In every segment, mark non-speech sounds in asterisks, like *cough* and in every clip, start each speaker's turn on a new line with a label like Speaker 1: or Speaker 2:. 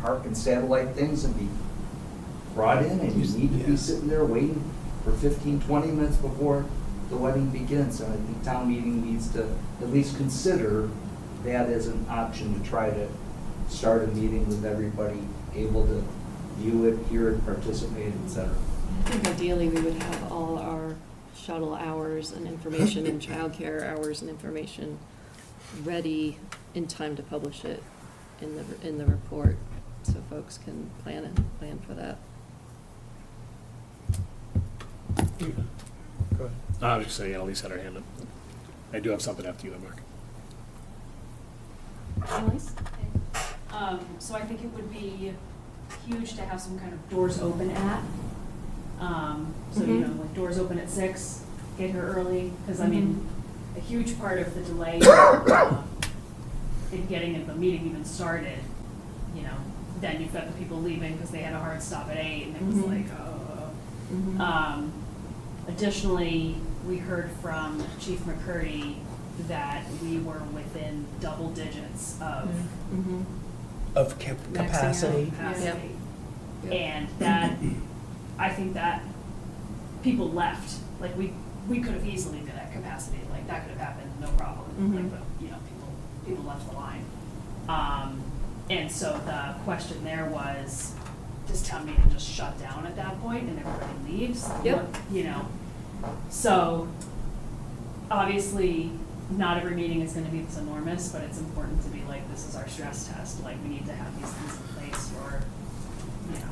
Speaker 1: park and satellite things and be brought in, and you need to
Speaker 2: Yeah.
Speaker 1: be sitting there waiting for 15, 20 minutes before the wedding begins. And I think town meeting needs to at least consider that as an option to try to start a meeting with everybody able to view it, hear it, participate, et cetera.
Speaker 3: I think ideally, we would have all our shuttle hours and information and childcare hours and information ready in time to publish it in the, in the report, so folks can plan and plan for that.
Speaker 2: Go ahead.
Speaker 4: I was just saying, Elise had her hand up. I do have something after you, though, Mark.
Speaker 3: Elise?
Speaker 5: Um, so I think it would be huge to have some kind of doors open at. Um, so, you
Speaker 3: Mhm.
Speaker 5: know, like doors open at six, get here early, because I mean, a huge part of the delay uh, in getting the meeting even started, you know, then you've got the people leaving because they had a hard stop at eight and it was
Speaker 3: Mhm.
Speaker 5: like, oh.
Speaker 3: Mm-hmm. Uh,
Speaker 5: Um, Additionally, we heard from Chief McCurdy that we were within double digits of
Speaker 3: Mhm.
Speaker 2: Of cap- capacity.
Speaker 5: capacity.
Speaker 3: Yep.
Speaker 5: And that, I think that people left, like, we, we could have easily been at capacity, like, that could have happened, no problem.
Speaker 3: Mhm.
Speaker 5: Like, but, you know, people, people left the line. Um, and so the question there was, does town meeting just shut down at that point and everybody leaves?
Speaker 3: Yep.
Speaker 5: You know, so obviously, not every meeting is gonna be this enormous, but it's important to be like, this is our stress test, like, we need to have these things in place for, you know,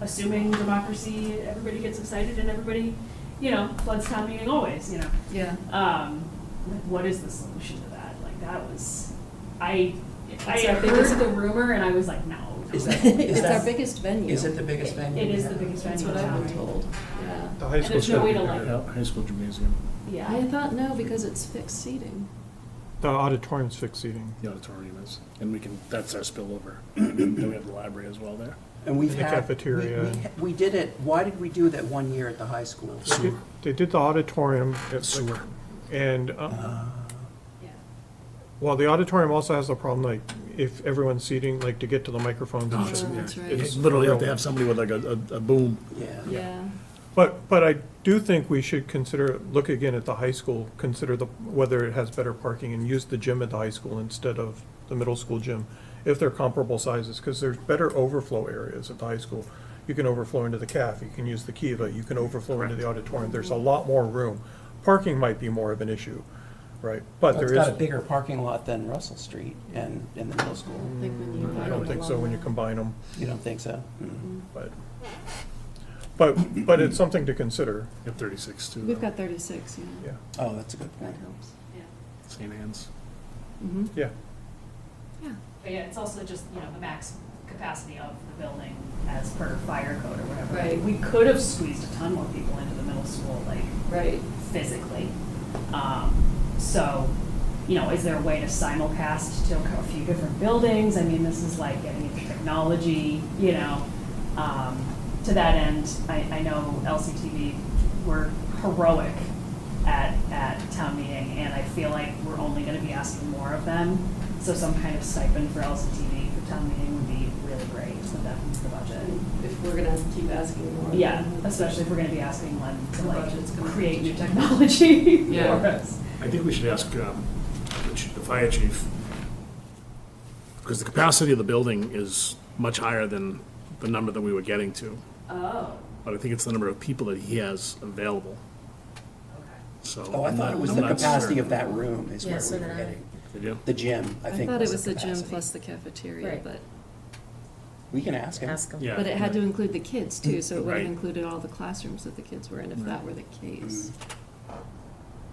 Speaker 5: assuming democracy, everybody gets excited and everybody, you know, floods town meeting always, you know.
Speaker 3: Yeah.
Speaker 5: Um, like, what is the solution to that? Like, that was, I, I
Speaker 3: It's our
Speaker 5: had
Speaker 3: biggest-
Speaker 5: heard the rumor and I was like, no. no.
Speaker 2: Is that-
Speaker 3: *laughs* It's
Speaker 2: that-
Speaker 3: our biggest venue.
Speaker 2: Is it the biggest venue?
Speaker 5: It
Speaker 2: we
Speaker 5: is the
Speaker 2: have?
Speaker 5: biggest
Speaker 3: That's
Speaker 5: venue
Speaker 3: what
Speaker 5: in
Speaker 3: I've been
Speaker 5: town, right?
Speaker 3: told, yeah.
Speaker 6: The high
Speaker 5: And
Speaker 6: school
Speaker 5: there's no way to
Speaker 6: stuff,
Speaker 5: like,
Speaker 4: High school gymnasium,
Speaker 3: I
Speaker 5: yeah,
Speaker 3: thought no, because it's fixed seating.
Speaker 6: the auditorium's fixed seating.
Speaker 4: the auditorium is, and we can, that's our spillover. *clears throat* Then we have the library as well there.
Speaker 2: And we've
Speaker 6: The
Speaker 2: had.
Speaker 6: cafeteria.
Speaker 2: we- we ha- We did it, why did we do that one year at the high school?
Speaker 6: They did- They did the auditorium. at-
Speaker 4: Sewer. Uh-huh.
Speaker 6: And, uh,
Speaker 5: yeah.
Speaker 6: well, the auditorium also has the problem, like, if everyone's seating, like, to get to the microphones. and shit.
Speaker 3: Oh, that's right.
Speaker 4: It's literally have to have somebody with like a, a a boom.
Speaker 2: Yeah.
Speaker 3: Yeah.
Speaker 6: But, but I do think we should consider, look again at the high school, consider the, whether it has better parking and use the gym at the high school instead of the middle school gym, if they're comparable sizes, because there's better overflow areas at the high school. You can overflow into the caf, you can use the kiva, you can overflow into the auditorium, there's a lot more room. Parking might be more of an issue, right? But
Speaker 2: Well,
Speaker 6: there
Speaker 2: It's
Speaker 6: is.
Speaker 2: got a bigger parking lot than Russell Street and, in the middle school.
Speaker 3: I think we need.
Speaker 6: I don't think so when you combine them,
Speaker 2: You don't think so? Mm.
Speaker 6: but, but, but it's something to consider,
Speaker 4: You have thirty-six too.
Speaker 3: We've
Speaker 4: though.
Speaker 3: got thirty-six, yeah.
Speaker 6: yeah,
Speaker 2: Oh, that's a good
Speaker 3: That
Speaker 2: point.
Speaker 3: helps.
Speaker 4: St. Anne's.
Speaker 3: Mm-hmm.
Speaker 6: yeah.
Speaker 3: Yeah.
Speaker 5: But yeah, it's also just, you know, the max capacity of the building as per fire code or whatever.
Speaker 3: Right.
Speaker 5: We could have squeezed a ton more people into the middle school, like
Speaker 3: Right.
Speaker 5: physically. Um, so, you know, is there a way to simulcast to a few different buildings? I mean, this is like getting into technology, you know. Um, to that end, I, I know LCTV were heroic at, at town meeting, and I feel like we're only gonna be asking more of them. So some kind of stipend for LCTV for town meeting would be really great, so that means the budget.
Speaker 3: If we're gonna keep asking more.
Speaker 5: Yeah,
Speaker 3: then that's-
Speaker 5: especially if we're gonna be asking one to
Speaker 3: The budget's
Speaker 5: like
Speaker 3: gonna
Speaker 5: create new *laughs*
Speaker 3: change.
Speaker 5: technology for
Speaker 3: Yeah.
Speaker 5: us.
Speaker 4: I think we should ask um, the ch- the fire chief, because the capacity of the building is much higher than the number that we were getting to.
Speaker 5: Oh,
Speaker 4: But I think it's the number of people that he has available,
Speaker 5: okay.
Speaker 4: so.
Speaker 2: Oh, I
Speaker 4: I'm
Speaker 2: thought
Speaker 4: not-
Speaker 2: it was
Speaker 4: I'm
Speaker 2: the
Speaker 4: not
Speaker 2: capacity
Speaker 4: sure.
Speaker 2: of that room is
Speaker 3: Yeah,
Speaker 2: where
Speaker 3: so
Speaker 2: we were
Speaker 3: did I.
Speaker 2: getting.
Speaker 4: Did you?
Speaker 2: The gym, I
Speaker 3: I
Speaker 2: think
Speaker 3: thought it was the gym
Speaker 2: capacity.
Speaker 3: plus the cafeteria,
Speaker 5: Right.
Speaker 3: but,
Speaker 2: We can ask him.
Speaker 7: Ask them.
Speaker 4: Yeah.
Speaker 3: but it had to include the kids too, so it would have
Speaker 4: Right.
Speaker 3: included all the classrooms that the kids were in if that were the case.
Speaker 4: Mm-hmm.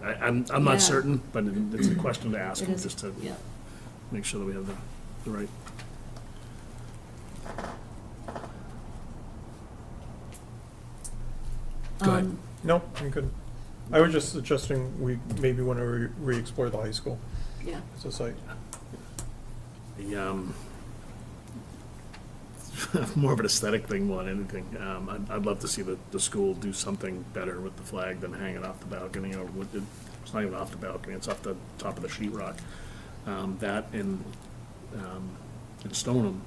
Speaker 4: I, I'm, I'm not
Speaker 3: Yeah.
Speaker 4: certain, but it- it's a question to ask
Speaker 3: It
Speaker 4: him,
Speaker 3: is-
Speaker 4: just to
Speaker 3: Yeah,
Speaker 4: make sure that we have the, the right. Go ahead.
Speaker 3: Um,
Speaker 6: No, I'm good. I was just suggesting we maybe want to re- re-explore the high school
Speaker 3: yeah.
Speaker 6: as a site.
Speaker 4: The, um, *laughs* more of an aesthetic thing more than anything. Um, I'd, I'd love to see the, the school do something better with the flag than hanging off the balcony or with, the- it's not even off the balcony, it's off the top of the sheet rock. Um, that and, um, in Stoneham,